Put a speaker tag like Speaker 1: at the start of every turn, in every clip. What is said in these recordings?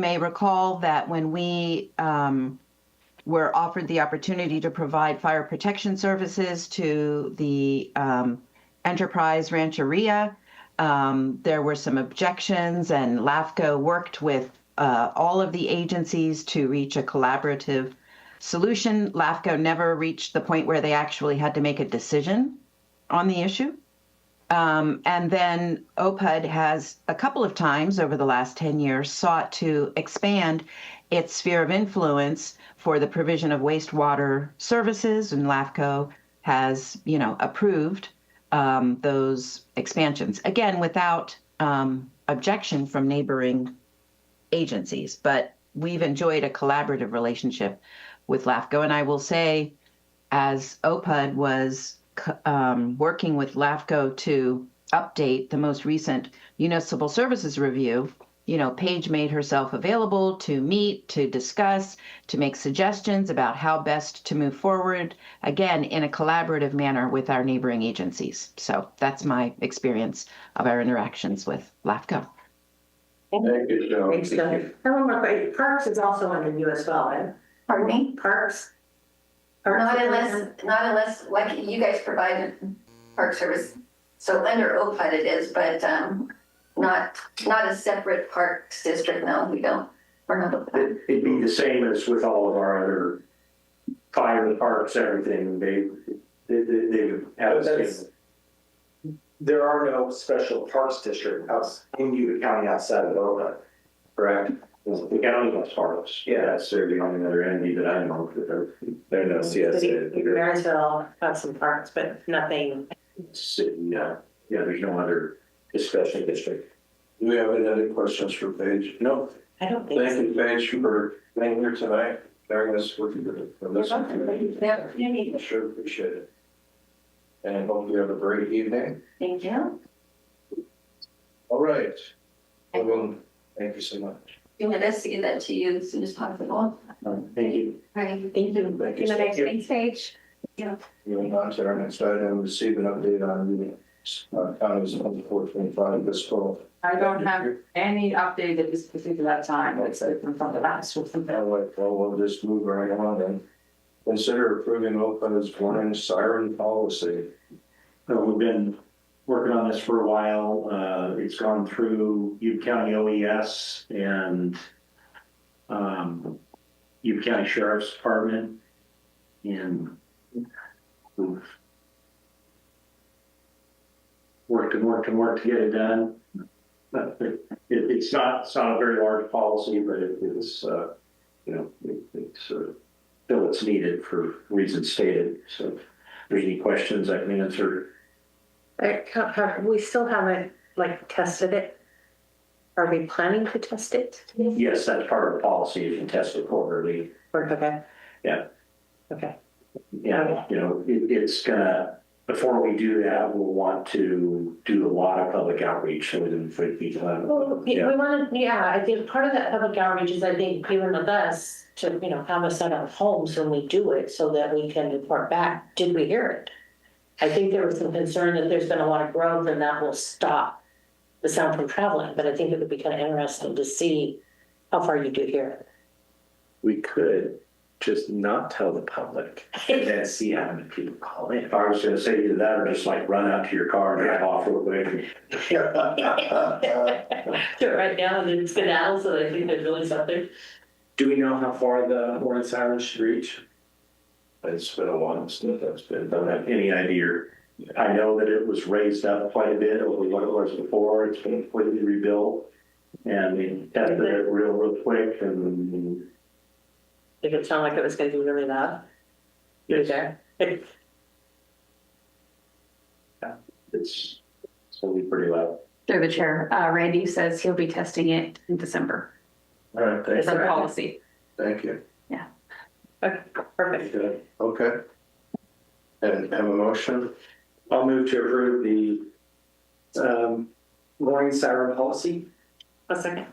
Speaker 1: may recall that when we um, were offered the opportunity to provide fire protection services to the um, Enterprise Rancheria, um, there were some objections, and LAFCO worked with uh, all of the agencies to reach a collaborative solution. LAFCO never reached the point where they actually had to make a decision on the issue. Um, and then OPUD has a couple of times over the last 10 years sought to expand its sphere of influence for the provision of wastewater services, and LAFCO has, you know, approved um, those expansions. Again, without um, objection from neighboring agencies, but we've enjoyed a collaborative relationship with LAFCO. And I will say, as OPUD was c- um, working with LAFCO to update the most recent municipal services review, you know, Paige made herself available to meet, to discuss, to make suggestions about how best to move forward, again, in a collaborative manner with our neighboring agencies. So that's my experience of our interactions with LAFCO.
Speaker 2: Thank you, Joan.
Speaker 3: Thanks, Doug. I have one more question. Parks is also under you as well, right?
Speaker 4: Pardon me?
Speaker 3: Parks? Parks
Speaker 4: Not
Speaker 3: is
Speaker 4: unless,
Speaker 3: under-
Speaker 4: not unless, like, you guys provide park service, so under OPUD it is, but, um, not, not a separate parks district, no, we don't, we're not OPUD.
Speaker 5: It- It'd be the same as with all of our other fire, parks, everything, they, they, they they would have the
Speaker 6: That's-
Speaker 5: same.
Speaker 6: There are no special parks district outs in Yuba County outside of Boca.
Speaker 5: Correct. The county was harmless.
Speaker 6: Yeah.
Speaker 5: That's they're the only other entity that I know of that are,
Speaker 6: There are no
Speaker 3: City-
Speaker 6: CSA.
Speaker 3: Marysville has some parks, but nothing.
Speaker 5: si- yeah, yeah, there's no other discussion district.
Speaker 2: Do we have any other questions for Paige?
Speaker 5: No,
Speaker 3: I don't think
Speaker 2: Thank
Speaker 3: so.
Speaker 2: you, Paige, for being here tonight, bearing us with you for listening.
Speaker 4: Never, you
Speaker 2: I
Speaker 4: need-
Speaker 2: sure appreciate it. And hope you have a great evening.
Speaker 4: Thank you.
Speaker 2: All right. Well, thank you so much. Um,
Speaker 4: You want us to get that to you as soon as possible?
Speaker 2: Thank you.
Speaker 4: Right.
Speaker 3: Thank you.
Speaker 2: Thank you. Thank you.
Speaker 4: page.
Speaker 2: Moving on to our next item, receive an update on the uh, county's twenty-four, twenty-five fiscal.
Speaker 7: I don't have any update at this particular time, except from the last one.
Speaker 2: All right, well, we'll just move right on and consider approving OPEB's warning siren policy.
Speaker 5: So we've been working on this for a while. Uh, it's gone through Yuba County OES and um, Yuba County Sheriff's Department and we've worked and worked and worked to get it done. But it, it's not, it's not a very large policy, but it is, uh, you know, it, it's, uh, still it's needed for reasons stated. So if there's any questions I can answer.
Speaker 3: I can't Uh, have- We still haven't, like, tested it. Are we planning to test it?
Speaker 5: Yes, that's part of the policy, you can test it quarterly.
Speaker 3: Or, okay.
Speaker 5: Yeah.
Speaker 3: Okay.
Speaker 5: Yeah, you know, it, it's gonna, before we do that, we'll want to do a lot of public outreach, so we can, for people.
Speaker 3: Well, we
Speaker 5: Yeah.
Speaker 3: want to, yeah, I think part of that public outreach is I think even with us to, you know, have a set of homes when we do it so that we can report back, did we hear it? I think there was some concern that there's been a lot of growth and that will stop the sound from traveling, but I think it would be kind of interesting to see how far you do hear
Speaker 8: we could just not tell the public and
Speaker 3: it.
Speaker 8: then see how many people call in.
Speaker 5: If I was gonna say either that or just like run out to your car and drive off real quick.
Speaker 3: Do it right now and then it's skedaddle, so I think there's really something.
Speaker 8: Do we know how far the horn sirens should reach?
Speaker 2: It's been a while since that's
Speaker 5: I
Speaker 2: been
Speaker 5: Don't
Speaker 2: done.
Speaker 5: have any idea. I know that it was raised up quite a bit over what it was before, it's been completely rebuilt. And we tested it real, real quick and.
Speaker 3: Did it sound like it was gonna be really loud?
Speaker 5: Yes.
Speaker 3: Okay.
Speaker 5: It's, it's gonna be pretty loud.
Speaker 9: Through the chair, uh, Randy says he'll be testing it in December.
Speaker 2: All right, thank,
Speaker 9: It's a
Speaker 3: December.
Speaker 9: policy.
Speaker 2: thank you.
Speaker 3: Okay, perfect.
Speaker 2: Good. Okay. And have a motion?
Speaker 8: I'll move to approve the um, warning siren policy.
Speaker 3: A second.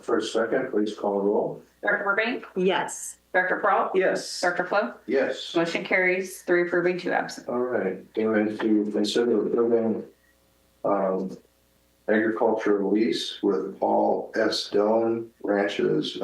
Speaker 2: First, second, please call roll.
Speaker 9: Director Burbank,
Speaker 3: Yes.
Speaker 9: Director Peralta,
Speaker 8: Yes.
Speaker 9: Director Flo,
Speaker 2: Yes.
Speaker 9: motion carries three approving, two absent.
Speaker 2: All right, going to consider approving um, agriculture lease with Paul S. Dillon Ranches